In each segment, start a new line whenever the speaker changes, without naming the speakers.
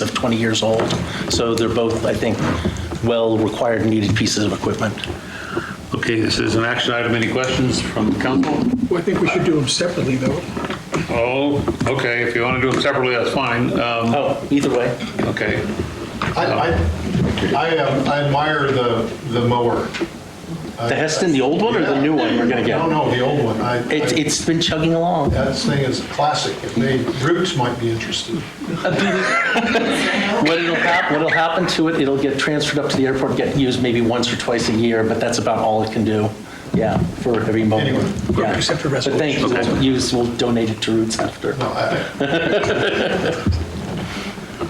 of 20 years old. So they're both, I think, well-required, needed pieces of equipment.
Okay, this is an action item. Any questions from the council?
Well, I think we should do them separately, though.
Oh, okay, if you want to do them separately, that's fine. Um,
Oh, either way.
Okay,
I, I, I um, I admire the, the mower.
The Heston, the old one or the new one we're going to get?
No, no, the old one. I,
It's,
I-
it's been chugging along.
That thing is classic. It made, Roots might be interested.
What'll happen, what'll happen to it, it'll get transferred up to the airport, get used maybe once or twice a year, but that's about all it can do. Yeah, for every moment.
Anyway,
Yeah.
okay, except for
But thank you,
resolutions.
we'll use, we'll donate it to Roots after.
No, I,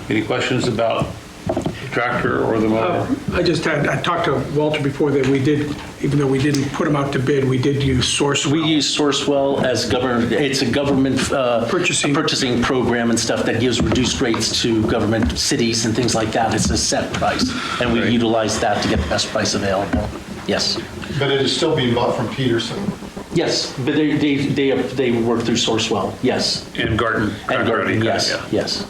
any questions about the tractor or the mower?
Oh.
I just had, I talked to Walter before that we did, even though we didn't put them out to bid, we did use source.
We use Sourcewell as government, it's a government. uh,
Purchasing.
Purchasing program and stuff that gives reduced rates to government cities and things like that. It's a set price, and we
Right.
utilize that to get the best price available. Yes.
but it is still being bought from Peterson.
Yes, but they, they, they they work through Sourcewell, yes.
And garden.
And Garden,
variety,
yes,
yeah.
yes.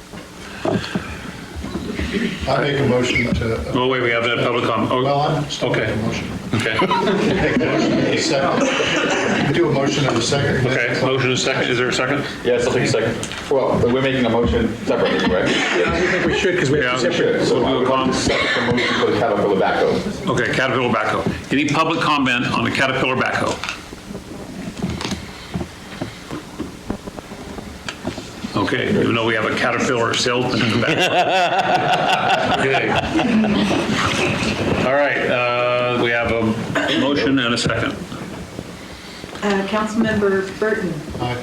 I make a motion to,
Oh, wait, we have that public comment. Oh,
well, I'm still making a motion.
Okay,
Make a motion in a second. Do a motion in a second.
okay. Motion is second. Is there a second?
Yeah, something second. Well, we're making a motion separately, correct?
I think we should, because we
Yeah,
have
we
to separate.
should.
So we will come second motion for the Caterpillar backhoe.
Okay, Caterpillar backhoe. Any public comment on the Caterpillar backhoe? Okay, even though we have a Caterpillar salesman in the back. Okay. All right, uh, we have a motion and a second.
Uh, Councilmember Burton,
Aye.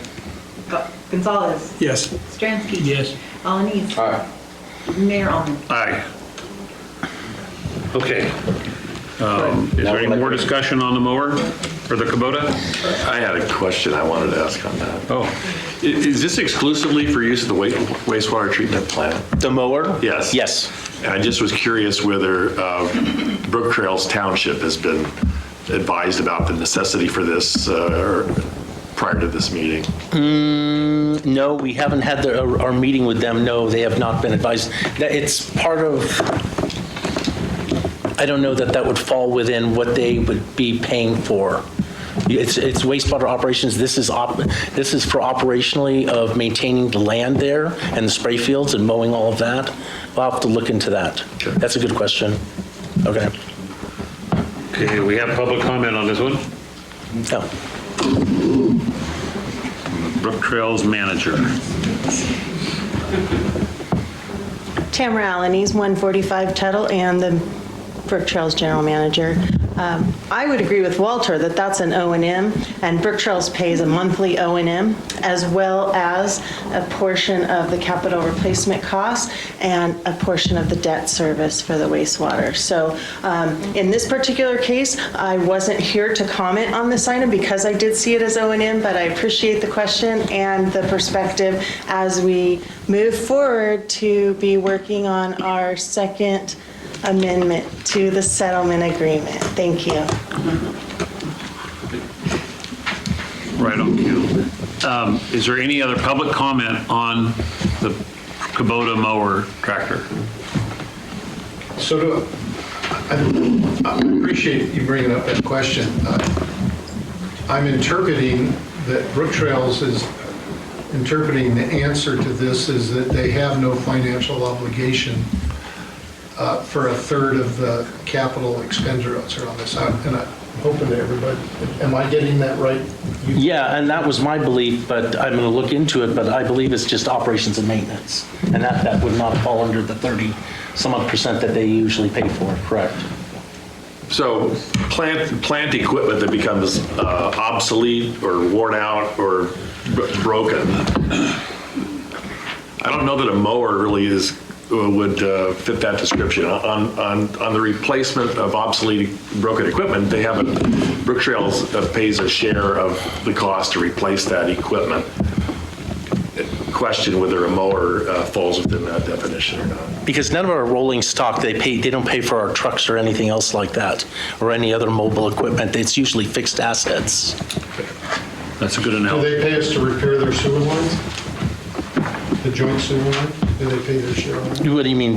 Go- Gonzalez,
Yes.
Stransky.
Yes.
Alanese.
All right.
Mayor Almond.
Aye. Okay. Um, Is there any more discussion on the mower or the Kubota?
I had a question I wanted to ask on that.
Oh,
I- Is this exclusively for use at the wa- wastewater treatment plant?
The mower?
Yes.
Yes.
And I just was curious whether uh, Brook Trails Township has been advised about the necessity for this uh, or prior to this meeting.
No, we haven't had the- our our meeting with them, no, they have not been advised. That It's part of, I don't know that that would fall within what they would be paying for. It's it's wastewater operations, this is, op. this is for operationally of maintaining the land there and the spray fields and mowing all of that. I'll have to look into that. That's a good question. Okay.
okay, we have public comment on this one.
No.
Brook Trails manager.
Tamara Alanis, 145 Tuttle, and the Brook Trails General Manager. Um, I would agree with Walter that that's an O and M, and Brook Trails pays a monthly O and M, as well as a portion of the capital replacement costs and a portion of the debt service for the wastewater. So um, in this particular case, I wasn't here to comment on this item because I did see it as O and M, but I appreciate the question and the perspective as we move forward to be working on our second amendment to the settlement agreement. Thank you.
Right on cue. Um, Is there any other public comment on the Kubota mower tractor?
So do, I I appreciate you bringing up that question. Uh, I'm interpreting that Brook Trails is interpreting the answer to this is that they have no financial obligation uh, for a third of the capital expenditure on this. I'm- And I'm hoping that everybody, am I getting that right? You-
Yeah, and that was my belief, but I'm going to look into it, but I believe it's just operations and maintenance. And that, that would not fall under the 30 some odd percent that they usually pay for, correct?
So plant, plant equipment that becomes uh, obsolete or worn out or b- broken. I don't know that a mower really is, would uh, fit that description. On, on, on the replacement of obsolete, broken equipment, they have, a Brook Trails uh, pays a share of the cost to replace that equipment. Question whether a mower uh, falls within that definition or not.
Because none of our rolling stock, they pay, they don't pay for our trucks or anything else like that, or any other mobile equipment. It's usually fixed assets.
That's a good
Do
analogy.
they pay us to repair their sewer line? The joint sewer line?
do they pay their share on it?
What do you mean,